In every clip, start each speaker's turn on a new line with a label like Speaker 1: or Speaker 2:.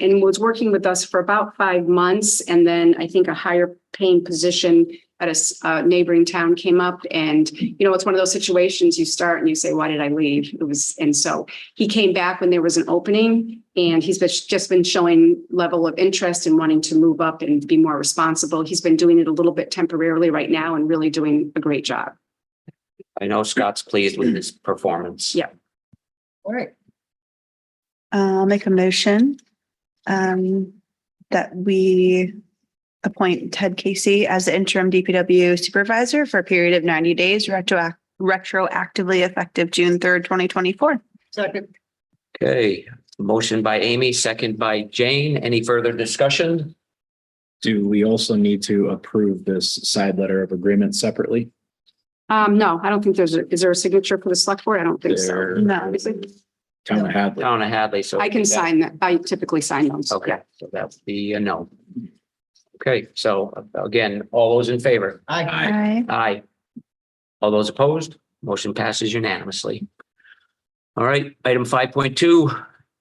Speaker 1: and was working with us for about five months. And then I think a higher paying position at a s- uh, neighboring town came up. And, you know, it's one of those situations you start and you say, why did I leave? It was, and so he came back when there was an opening and he's been, just been showing level of interest and wanting to move up and be more responsible. He's been doing it a little bit temporarily right now and really doing a great job.
Speaker 2: I know Scott's pleased with his performance.
Speaker 1: Yeah.
Speaker 3: All right.
Speaker 4: I'll make a motion um, that we appoint Ted Casey as the interim DPW supervisor for a period of ninety days retroact- retroactively effective June third, twenty twenty-four.
Speaker 3: Second.
Speaker 2: Okay, motion by Amy, second by Jane. Any further discussion?
Speaker 5: Do we also need to approve this side letter of agreement separately?
Speaker 1: Um, no, I don't think there's, a is there a signature for the select board? I don't think so.
Speaker 5: There-
Speaker 4: No.
Speaker 5: Town of Hadley.
Speaker 2: Donna Hadley, so.
Speaker 1: I can sign that. I typically sign those.
Speaker 2: Okay, so that would be a no. Okay, so again, all those in favor?
Speaker 3: Aye.
Speaker 4: Aye.
Speaker 2: Aye. All those opposed? Motion passes unanimously. All right, item five point two,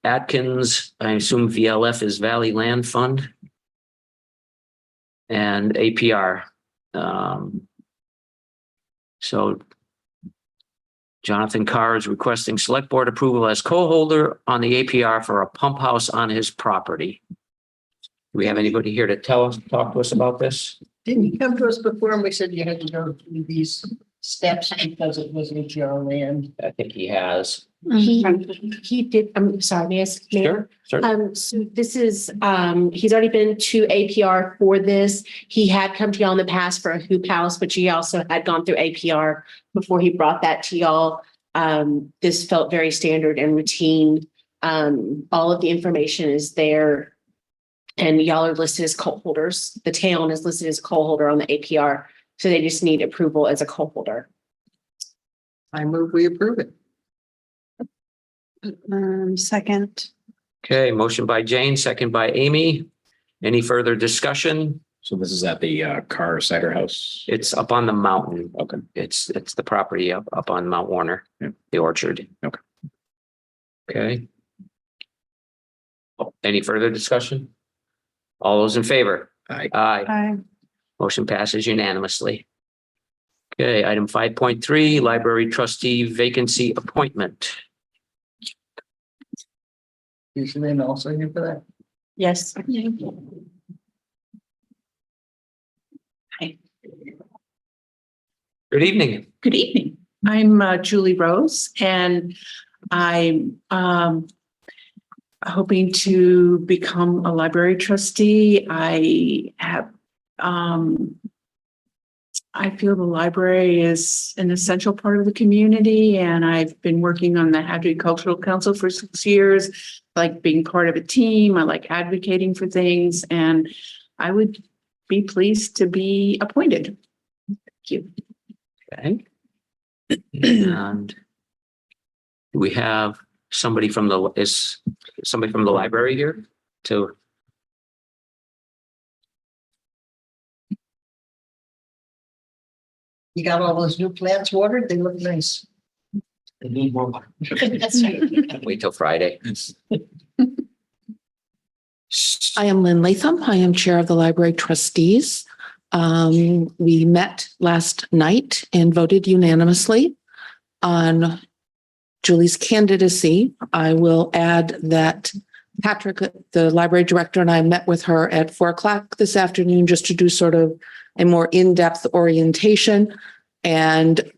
Speaker 2: Atkins, I assume VLF is Valley Land Fund. And APR. Um, So Jonathan Carr is requesting select board approval as co-holder on the APR for a pump house on his property. Do we have anybody here to tell us, talk to us about this?
Speaker 3: Didn't you come to us before and we said you had to go through these steps because it was AGR land?
Speaker 2: I think he has.
Speaker 6: He, he did, I'm sorry, may I? s- may
Speaker 2: Mm-hmm.
Speaker 6: I-
Speaker 2: Sure, sure.
Speaker 6: Um, so this is, um, he's already been to APR for this. He had come to y'all in the past for a hoop house, but he also had gone through APR before he brought that to y'all. Um, this felt very standard and routine. Um, all of the information is there. And y'all are listed as co-holders. The town is listed as co-holder on the APR, so they just need approval as a co-holder.
Speaker 3: I move we approve it.
Speaker 4: Um, second.
Speaker 2: Okay, motion by Jane, second by Amy. Any further discussion?
Speaker 5: So this is at the uh, Carr Cider House.
Speaker 2: It's up on the mountain.
Speaker 5: Okay.
Speaker 2: It's, it's the property up, up on Mount Warner,
Speaker 5: Yeah.
Speaker 2: the orchard.
Speaker 5: Okay.
Speaker 2: Okay. Oh, Any further discussion? All those in favor?
Speaker 5: Aye.
Speaker 2: Aye.
Speaker 4: Aye.
Speaker 2: Motion passes unanimously. Okay, item five point three, library trustee vacancy appointment.
Speaker 3: You should then also here for that.
Speaker 6: Yes.
Speaker 2: Good evening.
Speaker 7: Good evening. I'm uh, Julie Rose and I'm um, hoping to become a library trustee. I have um, I feel the library is an essential part of the community and I've been working on the Hadley Cultural Council for six years. Like being part of a team, I like advocating for things and I would be pleased to be appointed. Thank you.
Speaker 2: Okay. And do we have somebody from the, is somebody from the library here to?
Speaker 3: You got all those new plants watered? They look nice.
Speaker 2: They need more water.
Speaker 6: That's right.
Speaker 2: Wait till Friday.
Speaker 8: I am Lynn Latham. I am Chair of the Library Trustees. Um, we met last night and voted unanimously on Julie's candidacy. I will add that Patrick, the library director, and I met with her at four o'clock this afternoon just to do sort of a more in-depth orientation. And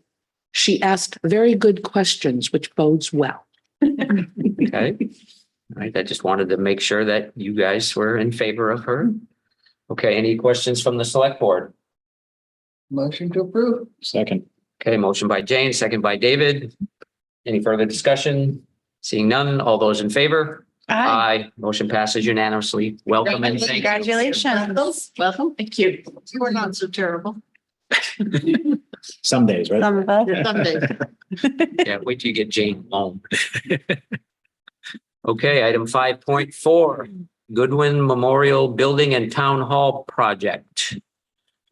Speaker 8: she asked very good questions, which bodes well.
Speaker 2: Okay. All right, I just wanted to make sure that you guys were in favor of her. Okay, any questions from the select board?
Speaker 3: Motion to approve.
Speaker 5: Second.
Speaker 2: Okay, motion by Jane, second by David. Any further discussion? Seeing none, all those in favor? Aye. Motion passes unanimously. Welcome and thank you.
Speaker 4: Congratulations.
Speaker 6: Welcome. Thank you.
Speaker 3: You are not so terrible.
Speaker 5: Some days, right?
Speaker 4: Some of us.
Speaker 2: Yeah, wait till you get Jane home. Okay, item five point four, Goodwin Memorial Building and Town Hall Project.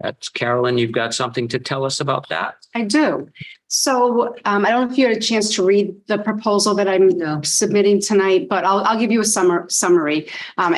Speaker 2: That's Carolyn, you've got something to tell us about that?
Speaker 1: I do. So um, I don't know if you had a chance to read the proposal that I'm submitting tonight, but I'll, I'll give you a summer, summary. Um,